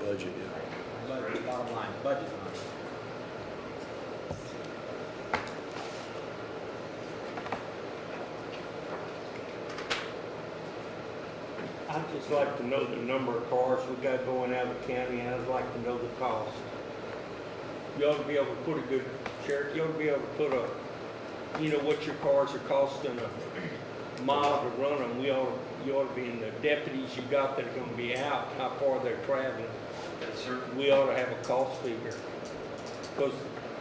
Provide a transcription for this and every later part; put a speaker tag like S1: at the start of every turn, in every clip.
S1: budget, yeah.
S2: Budget, bottom line, budget line.
S3: I'd just like to know the number of cars we got going out of the county, and I'd like to know the cost. You ought to be able to put a good, Sheriff, you ought to be able to put a, you know, what your cars are costing a mile to run them. We ought, you ought to be, in the deputies you got that are gonna be out, how far they're traveling.
S4: Yes, sir.
S3: We ought to have a cost figure. Because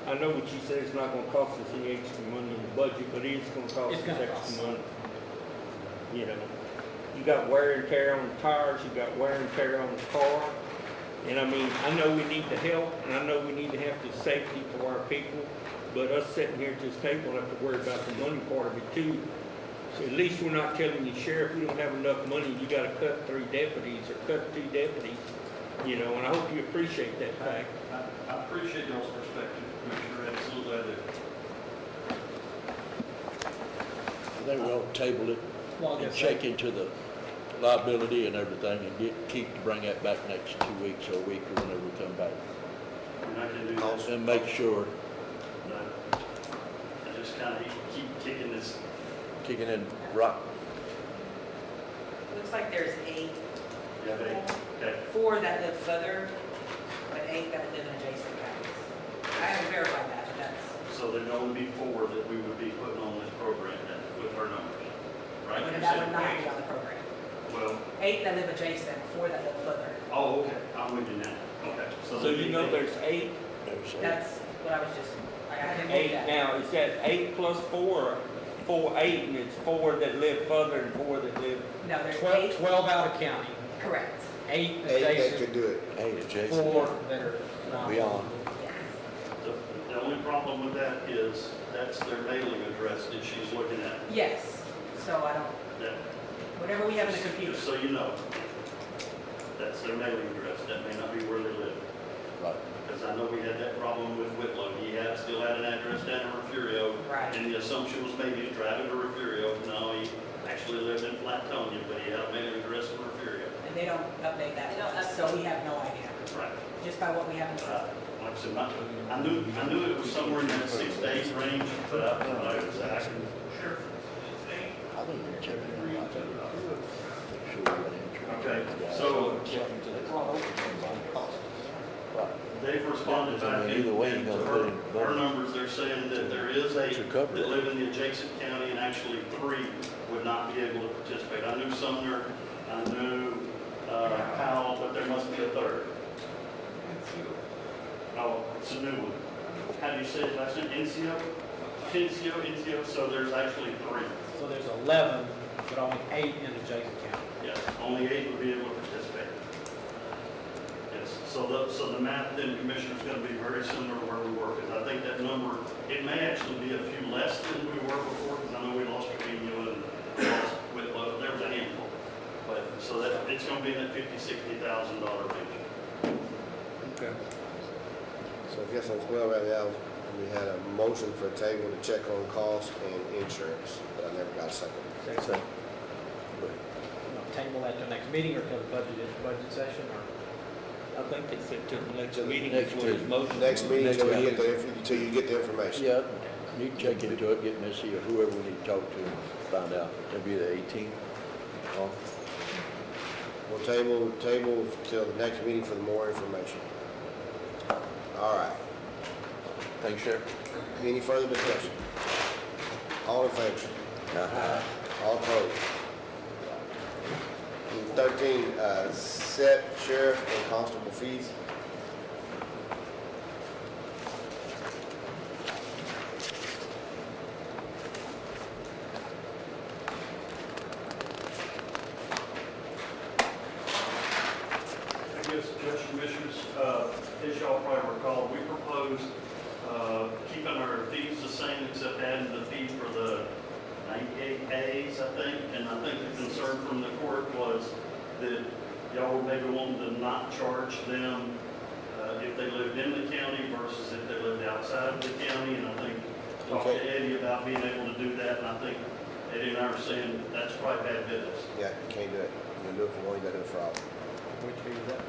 S3: I know what you said, it's not gonna cost us any extra money in the budget, but it is gonna cost
S2: It's
S3: us
S2: gonna
S3: extra
S2: cost.
S3: money. You know, you got wear and tear on the tires, you got wear and tear on the car. And I mean, I know we need the help, and I know we need to have the safety for our people, but us sitting here at this table have to worry about the money part of it too. So at least we're not telling the sheriff, we don't have enough money, you gotta cut three deputies or cut two deputies, you know, and I hope you appreciate that fact.
S4: I, I appreciate y'all's perspective, Commissioner, absolutely, I do.
S1: I think we ought to table it
S2: Well, I
S1: and
S2: guess
S1: check into the liability and everything and get Keith to bring that back next two weeks or a week or whenever we come back.
S4: And I can do that.
S1: And make sure,
S4: but I just kind of keep kicking this,
S1: kicking in rock,
S5: Looks like there's eight,
S4: yeah, they, okay.
S5: four that live southern, but eight that live in adjacent counties. I haven't verified that, but that's,
S4: So there'd only be four that we would be putting on this program then, with our numbers, right? You
S5: and that
S4: said
S5: would not be
S4: eight.
S5: on the program.
S4: Well,
S5: Eight that live adjacent, four that live southern.
S4: oh, okay, I'm with you now, okay.
S3: So
S4: there'd
S3: you
S4: be
S3: know
S4: eight.
S3: there's eight,
S1: there's a,
S5: That's what I was just, I I didn't
S3: eight
S5: do that.
S3: now, is that eight plus four, four, eight, and it's four that live further and four that live
S5: No, there's
S2: Twelve,
S5: eight,
S2: twelve out of county,
S5: correct.
S2: eight
S6: Eight that could
S2: adjacent,
S6: do it.
S1: hey, Jason,
S2: four that are not.
S1: beyond.
S5: Yes.
S4: The- The only problem with that is, that's their mailing address that she's looking at.
S5: Yes, so I don't,
S4: That-
S5: whatever we have in the
S4: Just-
S5: computer,
S4: Just so you know, that's their mailing address, that may not be where they live.
S1: Right.
S4: Because I know we had that problem with Whitlow, he had, still had an address down in Refugio.
S5: Right.
S4: And the assumption was maybe he was driving to Refugio, no, he actually lived in Flatonia, but he had a mailing address in Refugio.
S5: and they don't update that,
S7: They don't update.
S5: so we have no idea,
S4: Right.
S5: just by what we have in the
S4: But
S5: system.
S4: I- Uh, Like I said, my, I knew, I knew it was somewhere in that six to eight range, but I don't know exactly. Sure.
S1: I think we check it in rock. Make sure we got insurance.
S4: Okay,
S1: Yeah.
S4: so-
S1: Check into the car. Right.
S4: They've responded
S1: I
S4: back
S1: mean, either way,
S4: in-
S1: you're
S4: to
S1: gonna
S4: her,
S1: put in
S4: her
S1: both.
S4: numbers, they're saying that there is a,
S1: To cover
S4: that
S1: it.
S4: live in the adjacent county, and actually three would not be able to participate. I knew Sumner, I knew uh, Powell, but there must be a third. Oh, it's a new one. How do you say it, last name, Incio? Incio, Incio, so there's actually three.
S2: So there's eleven, but only eight in adjacent county.
S4: Yes, only eight would be able to participate. Yes, so the, so the math then, Commissioner, is going to be very similar to where we were, because I think that number, it may actually be a few less than we were before, because I know we lost Trevino and lost Whitlow, there was a handful. But, so that, it's going to be in that fifty, sixty thousand dollar range.
S6: So I guess as well right now, we had a motion for a table to check on cost and insurance, but I never got a second.
S1: So,
S2: We'll Table that till next meeting or till the budget, budget session or?
S3: I think they said to the next
S6: To the
S3: meeting
S1: next
S3: is what his
S1: meeting.
S3: motion.
S6: Next meeting,
S1: Mm-hmm. Next
S6: till you
S1: meeting.
S6: get the, inf- till you get the information.
S1: Yeah, you can check into it, get Missy or whoever we need to talk to and find out. That'd be the 18th. Oh,
S6: We'll table, table till the next meeting for more information. All right.
S1: Thanks, Sheriff.
S6: Any further discussion? All in favor? All opposed? Number Thirteen, uh, set sheriff and constable fees.
S4: I guess, Judge and Commissioners, uh, as y'all probably recall, we proposed uh, keeping our fees the same except adding the fee for the 98As, I think. And I think the concern from the court was that y'all were maybe wanting to not charge them uh, if they lived in the county versus if they lived outside of the county. And I think talked to Eddie about being able to do that, and I think Eddie and I were saying that's probably bad business.
S6: Yeah, you can't do it. You can do it for one, you gotta do it for all.
S2: Which fee is that?